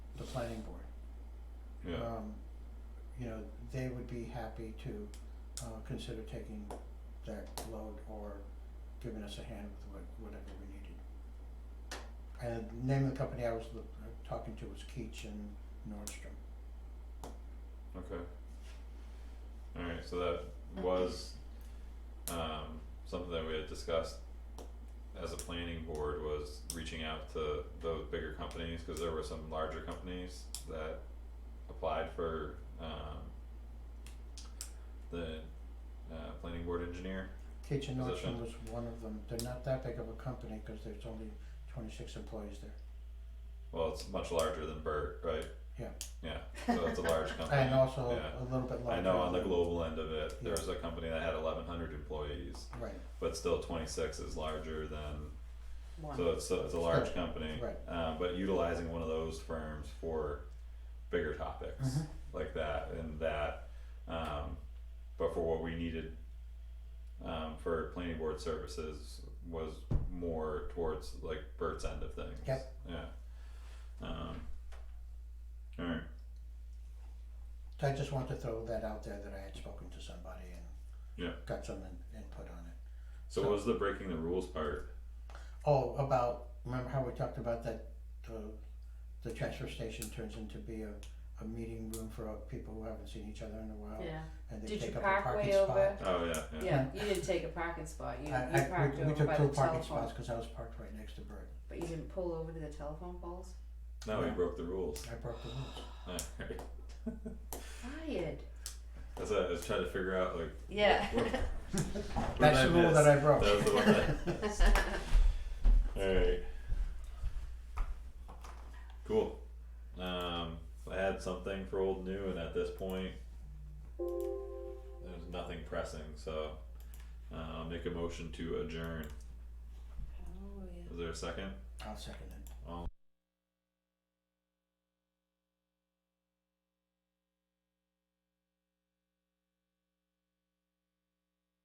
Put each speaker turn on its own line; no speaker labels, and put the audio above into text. planning board.
yeah,
Um, you know, they would be happy to, uh, consider taking that load or giving us a hand with what, whatever we needed. And the name of the company I was look- uh, talking to was Keach and Nordstrom.
okay. Alright, so that was um something that we had discussed as a planning board was reaching out to those bigger companies, cause there were some larger companies that applied for um the uh planning board engineer,
Keach and
Position.
Nordstrom was one of them. They're not that big of a company, cause there's only twenty-six employees there.
well, it's much larger than Bert, right?
Yeah.
Yeah, so it's a large company,
And also
yeah.
a little bit larger.
I know on the
than-
global end of it, there
Yeah.
was a company that had eleven hundred employees,
Right,
but still twenty six is larger than,
One.
so it's so it's a large company.
right.
Uh, but utilizing one of those firms for bigger topics
Mhm.
like that and that, um, but for what we needed. Um, for planning board services was more towards like Bert's end of things.
Yep.
Yeah. Um. Alright,
So I just want to throw that out there that I had spoken to somebody and
Yeah.
got some in- input on it.
so what was the breaking the rules part?
Oh, about, remember how we talked about that, uh, the transfer station turns into be a, a meeting room for uh, people who haven't seen each other in a while?
Yeah,
And they
Did you
take up a
park
parking
way
spot.
over?
Oh, yeah, yeah.
yeah, you didn't take a parking spot, you, you
I- I- we-
parked
we,
over
took
by
two
the
parking
telephone,
spots, cause I was parked right next to Bert.
but you didn't pull over to the telephone poles?
No, we
Yeah.
broke the rules.
I broke the rules.
Alright.
Fired.
That's what I was trying to figure out, like,
Yeah.
What did
That's the rule that I broke.
That was the one that. Alright. Cool. Um, I had something for old new, and at this point, there's nothing pressing, so uh, I'll make a motion to adjourn.
Oh, yeah.
Is there a second?
I'll second it.
All